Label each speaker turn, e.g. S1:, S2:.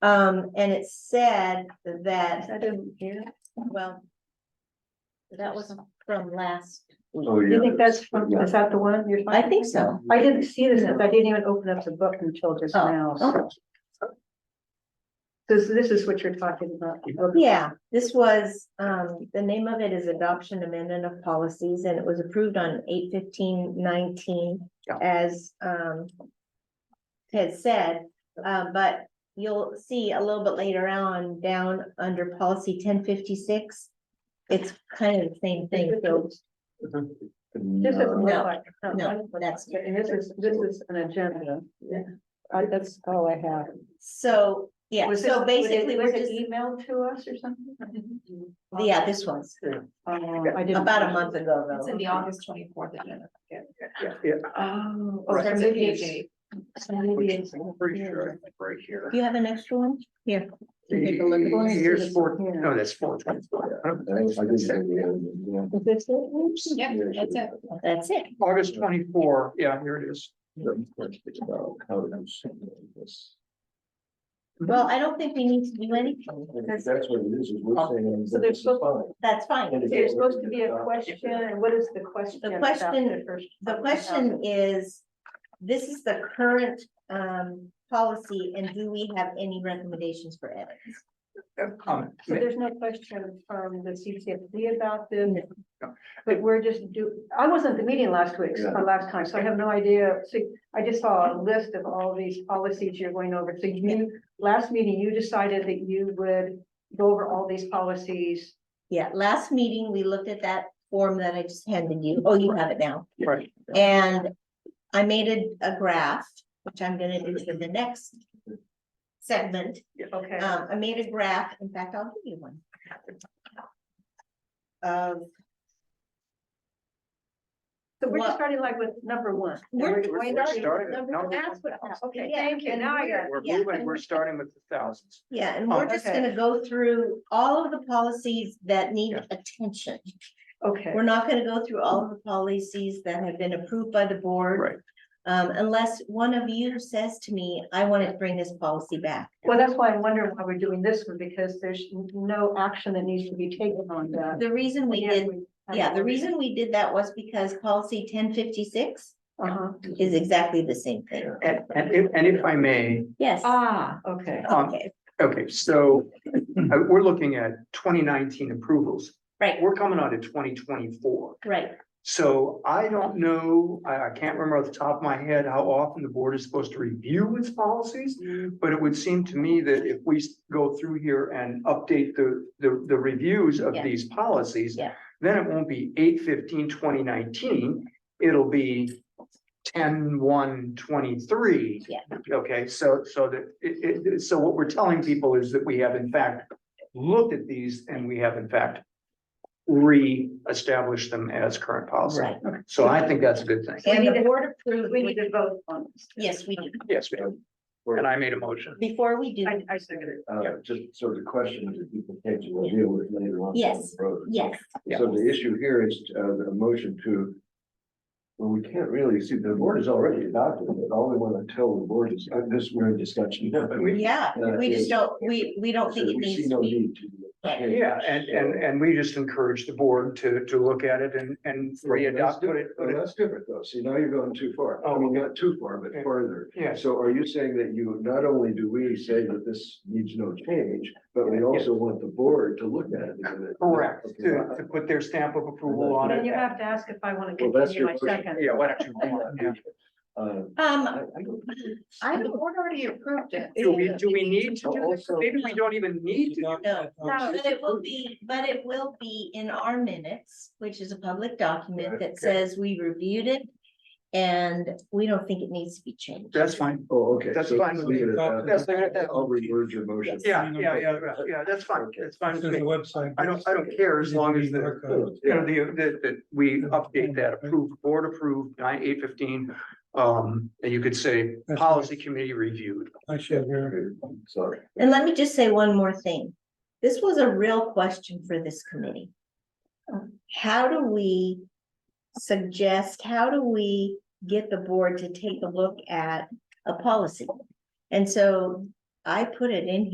S1: Um, and it said that,
S2: I didn't hear.
S1: well. That was from last,
S3: Oh,
S2: Do you think that's from, is that the one you're?
S1: I think so.
S2: I didn't see this, I didn't even open up the book until just
S1: Oh,
S2: now.
S1: okay.
S2: This, this is what you're talking about.
S1: Yeah, this was, um, the name of it is Adoption Amendment of Policies, and it was approved on eight fifteen nineteen
S2: Yeah.
S1: as, um, had said, uh, but you'll see a little bit later on, down under policy ten fifty-six, it's kind of the same thing, so
S2: This is.
S1: No, no, that's-
S2: And this is, this is an agenda. Yeah. that's all I have.
S1: So, yeah,
S2: Was it-
S1: so
S2: was it-
S1: basically,
S2: Was
S1: we're
S2: it E?
S1: just,
S2: emailed to us or something?
S1: yeah, this was
S2: Um, I didn't.
S1: about a month ago,
S4: It's in
S1: though.
S4: the August twenty-fourth agenda.
S2: Oh.
S4: Or
S2: oh,
S4: starts
S2: so
S4: at
S2: maybe it's-
S4: page eight.
S2: so maybe it's-
S5: Pretty sure, I think right here.
S1: Do you have an extra one? Here.
S2: You take a look.
S5: Here's four,
S2: Yeah.
S5: no, that's four. oh.
S2: Is this it?
S4: Yeah, that's it.
S1: That's it.
S5: August twenty-four, yeah, here it is.
S1: Well, I don't think we need to do anything.
S2: That's-
S3: what it is, is we're saying.
S2: So there's supposed-
S3: Fine.
S1: That's fine.
S2: There's supposed to be a question, and what is the question?
S1: The
S2: about
S1: question-
S2: first-
S1: The question is, this is the current um policy, and do we have any recommendations for edits?
S5: Comment.
S2: So there's no question from the CCFD about this, but we're just do, I wasn't at the meeting last week,
S3: Yeah.
S2: or last time, so I have no idea. So I just saw a list of all these policies you're going over. So you, last meeting, you decided that you would go over all these policies.
S1: Yeah, last meeting, we looked at that form that I just handed you. Oh, you have it now.
S5: Right,
S1: And I made a, a graph, which I'm gonna do for the next segment.
S2: Okay.
S1: Um, I made a graph, in fact, I'll give you one. Of,
S2: So we're
S1: what-
S2: just starting like with number one.
S1: We're-
S5: we're starting at number
S2: That's what, okay,
S1: Yeah,
S2: thank you. Now I got it.
S5: we're
S1: Yeah.
S5: moving, we're starting with the thousands. Oh,
S1: yeah, and we're just
S2: Okay.
S1: gonna go through all of the policies that need
S5: Yeah.
S1: attention.
S2: Okay.
S1: We're not gonna go through all of the policies that have been approved by the board.
S5: Right.
S1: Um, unless one of you says to me, I want to bring this policy back.
S2: Well, that's why I'm wondering why we're doing this one, because there's no action that needs to be taken on that.
S1: The reason we
S2: Yeah,
S1: did, yeah, the reason we did that was because policy ten fifty-six
S2: Uh-huh.
S1: is exactly the same thing.
S5: And, and if, and if I may,
S1: Yes,
S2: Ah, okay.
S5: um,
S1: okay,
S5: okay, so uh, we're looking at twenty nineteen approvals.
S1: Right.
S5: We're coming on to twenty twenty-four.
S1: right.
S5: So I don't know, I, I can't remember off the top of my head how often the board is supposed to review its policies. But it would seem to me that if we s- go through here and update the, the, the reviews of
S1: Yeah.
S5: these policies.
S1: Yeah.
S5: Then it won't be 8-15-2019. fifteen twenty nineteen, it'll be 10-1-23.
S1: Yeah.
S5: Okay, so, so that, it, it, so what we're telling people is that we have in fact looked at these and we have in fact re-established them as current policy.
S1: Right.
S5: So I think that's a good thing.
S1: And
S2: need
S1: the
S2: to-
S1: board approved,
S2: We need to vote on this.
S1: yes, we do.
S5: Yes, ma'am. and I made a motion.
S1: Before we do,
S2: I, I second it.
S3: Uh, just sort of questions that people take to deal with later on. down the
S1: Yes.
S3: road.
S1: yes,
S5: Yeah.
S3: So the issue here is, uh, the motion to. Well, we can't really see, the board has already adopted it, all we want to tell the board is, uh, this, we're in discussion. now, but we-
S1: yeah,
S3: Uh,
S1: we just
S3: yeah.
S1: don't, we, we don't think it
S3: We see
S1: needs
S3: no
S1: to be.
S3: need to. change,
S5: Yeah, and, and, and we just encourage the board to, to look at it and, and
S3: so-
S5: re-adopt it.
S3: Well, That's different though, see, now you're going too far, I
S5: Oh.
S3: mean, not too far, but
S5: Okay.
S3: farther.
S5: Yeah,
S3: So are you saying that you, not only do we say that this needs no change, but we also want the board to look at it? and then-
S5: correct,
S3: Okay.
S5: to, to put their stamp of approval on
S2: Then you
S5: it.
S2: have to ask if I want to
S3: Well, that's
S2: continue my
S3: your question.
S2: second.
S5: Yeah, why don't you? yeah.
S3: Uh,
S1: Um,
S3: I- I don't-
S4: I, the board already approved it.
S5: Do we, do we need to do this?
S3: Also-
S5: Maybe we don't even need to. do it.
S1: no, but it will be, but it will be in our minutes, which is a public document that says we reviewed it. And we don't think it needs to be changed.
S5: That's fine.
S3: Oh, okay.
S5: That's
S3: so
S5: fine
S3: let's
S5: with
S3: leave
S5: me.
S3: it at
S5: That's fine with
S3: that.
S5: that.
S3: I'll reword your motion.
S5: Yeah, yeah, yeah, yeah, yeah, that's fine. That's fine
S6: This
S5: with
S6: is the
S5: me.
S6: website.
S5: I don't, I don't care as long as the, you know, the, that, that we update that approved, board approved, nine, eight fifteen. Um, and you could say,
S6: That's
S5: policy committee reviewed.
S6: I should hear.
S3: Sorry.
S1: And let me just say one more thing. This was a real question for this committee. How do we suggest, how do we get the board to take a look at a policy? And so I put it in